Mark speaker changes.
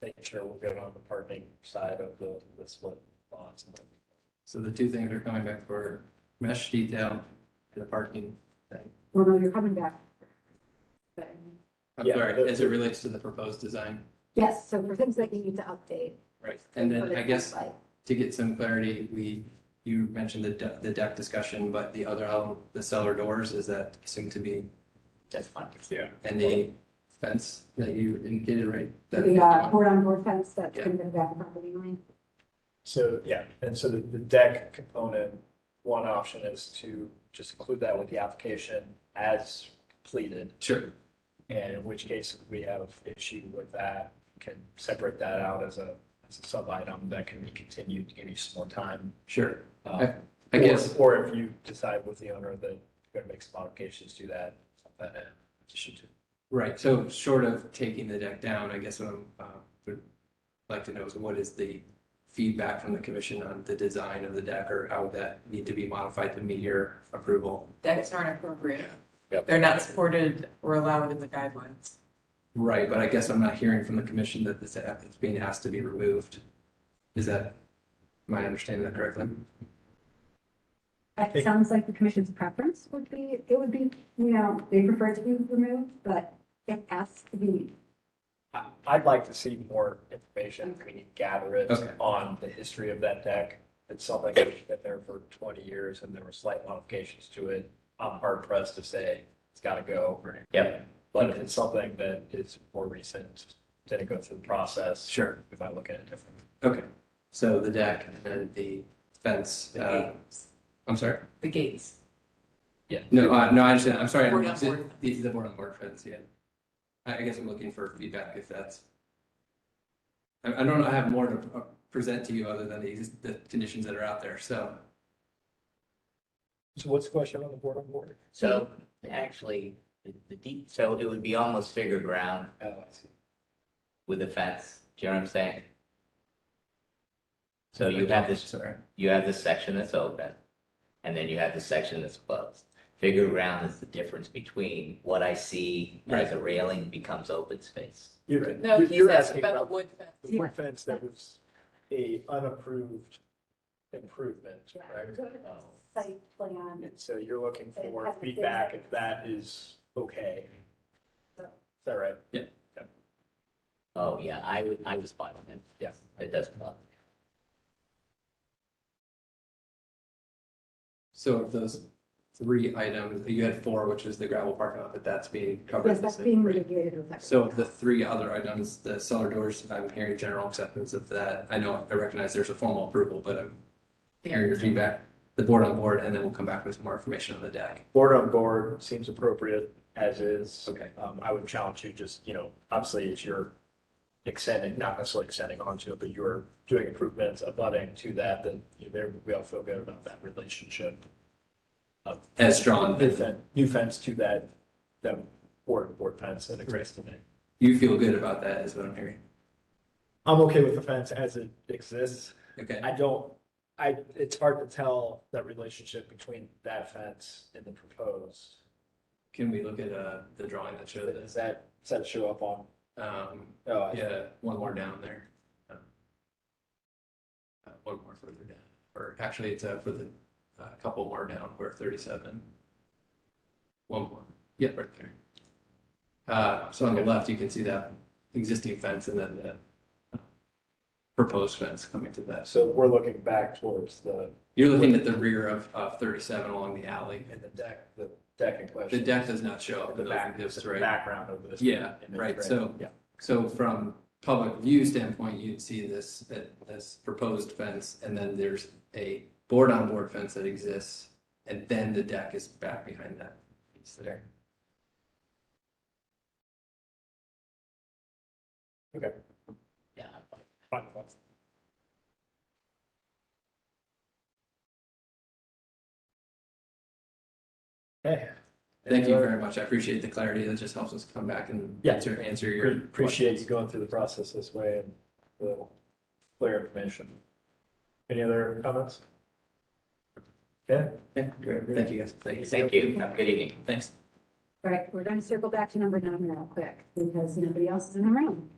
Speaker 1: making sure we're good on the parking side of the, the split lots.
Speaker 2: So the two things are coming back for mesh detail and the parking.
Speaker 3: Well, no, you're coming back. But,
Speaker 2: I'm
Speaker 1: Yeah,
Speaker 2: sorry,
Speaker 1: the-
Speaker 2: as it relates to the proposed design,
Speaker 3: Yes, so for things that you need to update.
Speaker 2: right? And
Speaker 3: for
Speaker 2: then
Speaker 3: the
Speaker 2: I guess
Speaker 3: website.
Speaker 2: to get some clarity, we, you mentioned the de- the deck discussion, but the other element, the cellar doors, is that assumed to be? That's fine.
Speaker 1: Yeah.
Speaker 2: And the fence that you indicated, right? That-
Speaker 3: The uh, board on board fence that's
Speaker 2: Yeah.
Speaker 3: going to go back on the line.
Speaker 1: So, yeah, and so the, the deck component, one option is to just include that with the application as completed.
Speaker 2: Sure,
Speaker 1: And in which case, if we have issue with that, can separate that out as a, as a sub item that can be continued to give you some more time.
Speaker 2: sure.
Speaker 1: Um,
Speaker 2: I guess,
Speaker 1: Or or if you decide with the owner that you're gonna make some modifications to that, that uh, should do.
Speaker 2: right, so short of taking the deck down, I guess what I'm, uh, would like to know is what is the feedback from the commission on the design of the deck or how would that need to be modified to meet your approval?
Speaker 4: decks aren't appropriate.
Speaker 1: Yep.
Speaker 4: They're not supported or allowed in the guidelines.
Speaker 2: Right, but I guess I'm not hearing from the commission that this app is being asked to be removed. Is that, am I understanding that correctly?
Speaker 3: That sounds like the commission's preference would be, it would be, you know, they prefer it to be removed, but it has to be.
Speaker 1: I- I'd like to see more information, we need to gather it
Speaker 2: Okay.
Speaker 1: on the history of that deck. It's something that's been there for twenty years and there were slight modifications to it. I'm hard pressed to say it's gotta go. Yep. But if it's something that is more recent, then it goes through the process
Speaker 2: Sure.
Speaker 1: if I look at it differently.
Speaker 2: Okay, so the deck and then the fence,
Speaker 4: The
Speaker 2: uh,
Speaker 4: gates,
Speaker 2: I'm sorry?
Speaker 4: the gates.
Speaker 2: No, uh, no, I understand, I'm sorry.
Speaker 4: Board on board.
Speaker 2: These are the board on board fence, yeah. I, I guess I'm looking for feedback if that's. I, I don't know, I have more to uh, present to you other than the, exist- the conditions that are out there, so.
Speaker 1: So what's the question on the board on board?
Speaker 5: So actually, the- the deep, so it would be almost figure ground
Speaker 1: Oh, I see.
Speaker 5: with a fence, do you know what I'm saying? So you have this,
Speaker 2: Sorry,
Speaker 5: you have this section that's open, and then you have the section that's closed. Figure ground is the difference between what I see as a railing becomes open space.
Speaker 1: You're,
Speaker 4: No,
Speaker 1: you're-
Speaker 4: he's
Speaker 1: you're
Speaker 4: asking
Speaker 1: asking
Speaker 4: about
Speaker 1: about
Speaker 4: the wood fence.
Speaker 1: the wood fence that was a unapproved improvement, right?
Speaker 3: Site plan.
Speaker 1: And so you're looking for feedback if that is okay. Is that right?
Speaker 5: Oh, yeah, I would, I was fine with it.
Speaker 1: Yeah.
Speaker 5: It doesn't bother. me.
Speaker 2: so of those three items, you had four, which is the gravel parking lot, but that's being covered.
Speaker 3: Yes, that's being mitigated with that.
Speaker 2: So of the three other items, the cellar doors, I'm hearing general acceptance of that, I know, I recognize there's a formal approval, but I'm hearing your feedback. The board on board, and then we'll come back with more information on the deck.
Speaker 1: Board on board seems appropriate as is.
Speaker 2: Okay.
Speaker 1: Um, I would challenge you just, you know, obviously it's your extending, not necessarily extending onto it, but you're doing improvements, abutting to that, then you know, there, we all feel good about that relationship.
Speaker 2: As drawn,
Speaker 1: New fence, new fence to that, that board, board fence that exists today.
Speaker 2: you feel good about that is what I'm hearing.
Speaker 1: I'm okay with the fence as it exists.
Speaker 2: Okay,
Speaker 1: I don't, I, it's hard to tell that relationship between that fence and the proposed.
Speaker 2: can we look at uh the drawing that showed this?
Speaker 1: Does that, does that show up on?
Speaker 2: Um,
Speaker 1: Oh, I-
Speaker 2: yeah, one more down there. Uh, One more further down, or actually it's uh for the, a couple more down, we're thirty-seven. One more, yeah, right there. Uh, so on the left, you can see that existing fence and then the proposed fence coming to that.
Speaker 1: so we're looking back towards the,
Speaker 2: You're looking at the rear of of thirty-seven along the alley.
Speaker 1: in the deck, the deck in
Speaker 2: The
Speaker 1: question.
Speaker 2: deck does not show up.
Speaker 1: The
Speaker 2: those-
Speaker 1: back,
Speaker 2: those
Speaker 1: the
Speaker 2: three.
Speaker 1: background of this.
Speaker 2: Yeah,
Speaker 1: image,
Speaker 2: right, so-
Speaker 1: Yeah.
Speaker 2: So from public view standpoint, you'd see this, this proposed fence, and then there's a board-on-board fence that exists, and then the deck is back behind that. piece there.
Speaker 5: Yeah, I'm fine.
Speaker 1: Fine, fine. Okay.
Speaker 2: Thank you very much, I appreciate the clarity, that just helps us come back and
Speaker 1: uh, Yeah.
Speaker 2: answer, answer your.
Speaker 1: Pre- Appreciate you going through the process this way and the clear information. Any other comments? Yeah,
Speaker 2: Yeah, great. Thank you guys, thanks,
Speaker 5: Thank you, have a good evening.
Speaker 2: thanks.
Speaker 3: All right, we're going to circle back to number nine real quick because nobody else is in the room.